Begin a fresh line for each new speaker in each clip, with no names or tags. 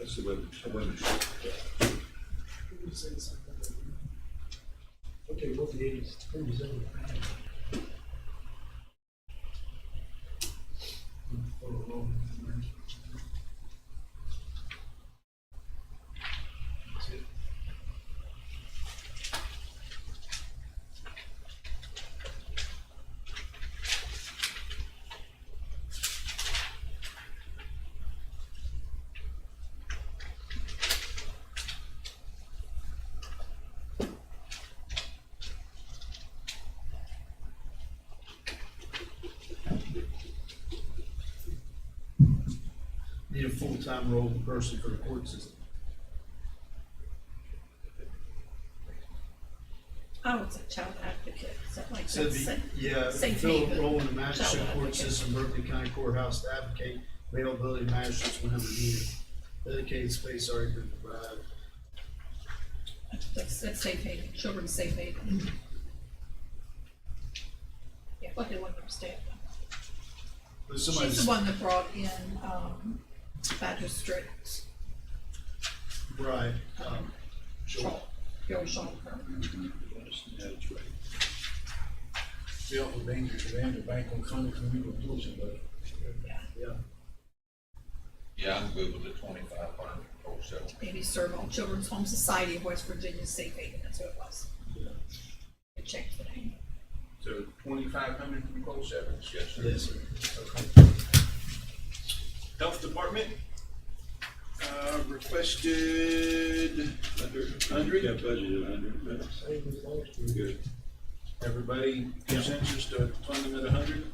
It's the women's.
The women's.
Okay, what the eighties, thirties, and
Need a full-time role person for the court system.
Oh, it's a child advocate, something like
So
that.
the,
Sa-
yeah,
Safe
fill a
haven.
role in the magistrate
Child
court
advocate.
system, Berkeley County Courthouse to advocate availability of magistrates whenever needed. Dedicated space already been provided.
That's, that's safe haven, children's safe
Mm-hmm.
haven. Yeah, what they want to understand.
But
She's
somebody's
the one that brought in, um, Badger Strict,
right, um,
Shaw, Gary Shaw.
Yes, that's right.
still the danger to them to bank on Sunday community policing, but
yeah.
Yeah, I'm good with the twenty-five hundred wholesale.
Maybe serve on Children's Home Society of West Virginia Safe Haven, that's what it was. I checked the name.
So twenty-five hundred from wholesale, yes, sir.
Yes,
Health Department, uh, requested
Under,
hundred. Yeah, budgeted hundred, but good.
everybody
Consensus to fund them at a hundred?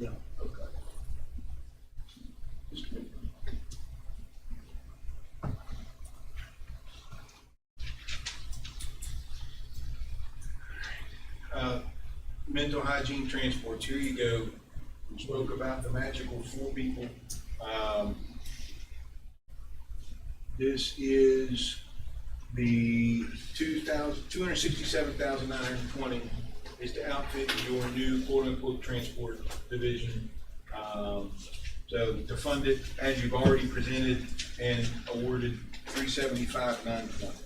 Yeah.
Okay.
uh, mental hygiene transports, here you go. We Spoke about the magical four people. Um, This is the two thousand, two hundred sixty-seven thousand nine hundred twenty is to outfit your new quote-unquote transport division. Um, So to fund it, as you've already presented and awarded, three seventy-five nine twenty.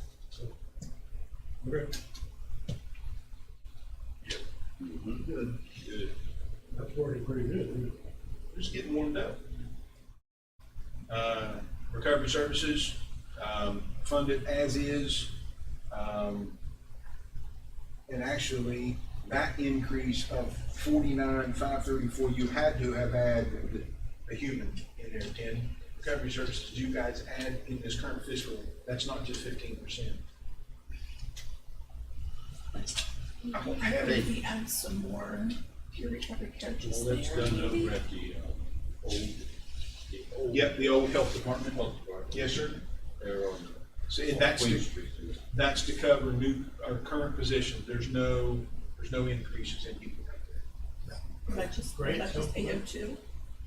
Good.
Good.
that's already pretty good. isn't it?
just getting warmed up. Uh, recovery services, um, funded as is. Um, and actually, that increase of forty-nine, five thirty-four, you had to have had a human in there, ten. Recovery services, you guys add in this current fiscal, that's not just fifteen percent. I don't have it.
Maybe add some more peer recovery characters
Well,
there.
that's done over at the, uh, old, the old.
Yep, the old health department.
Health Department.
Yes, sir.
There on
So
the.
and that's
Queen
the,
Street.
That's to cover new, our current position, there's no, there's no increases in people right there.
That just,
Great,
that just
so-
eight oh two,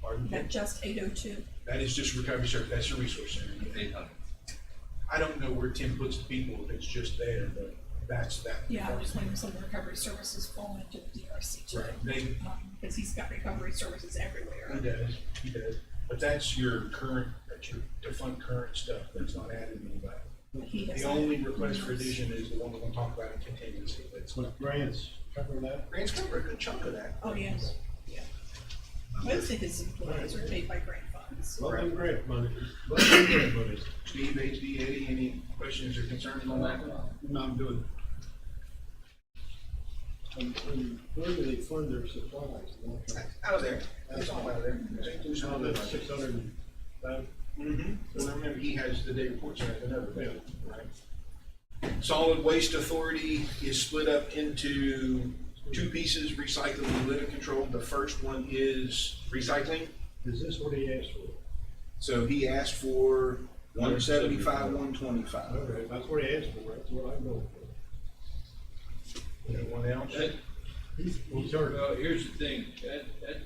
Pardon?
that just eight oh two.
That is just recovery service, that's a resource center.
Eight hundred.
I don't know where Tim puts the people, if it's just there, but that's that.
Yeah, I was waiting for some recovery services fall into the DRC too.
Right, they,
Because he's got recovery services
he
everywhere.
does, he does, but that's your current, that's your, to fund current stuff, that's not added anybody.
He has
The only request for addition is the one we're gonna talk about in contingency, that's,
But grants, cover that.
Grant's covered a good chunk of that.
Oh, yes, yeah. Most of his employees are paid by grant funds.
Let them grant money, let them grant money.
Steve, HD, Eddie, any questions or concerns on that one?
No, I'm good.
And, and where do they fund their supplies?
Out of there, that's all out of there. St. Louis,
Now,
all
that's
that.
six hundred and five,
Mm-hmm. Well, remember, he has the day reports and another bill, right? Solid Waste Authority is split up into two pieces, recycling and litter control. The first one is recycling.
is this what he asked for?
So he asked for one seventy-five, one twenty-five.
Okay, that's what he asked for, that's what I know
Anyone else?
That,
for. He's, he's already.
well, here's the thing, that, that,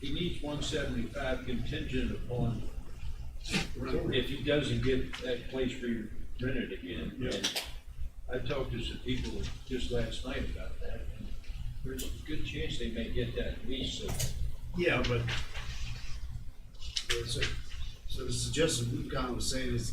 he needs one seventy-five contingent upon if he doesn't get that place re-rented again.
Yeah.
And I talked to some people just last night about that, and there's a good chance they may get that lease, so
Yeah, but. So, so the suggestion Luke Con was saying is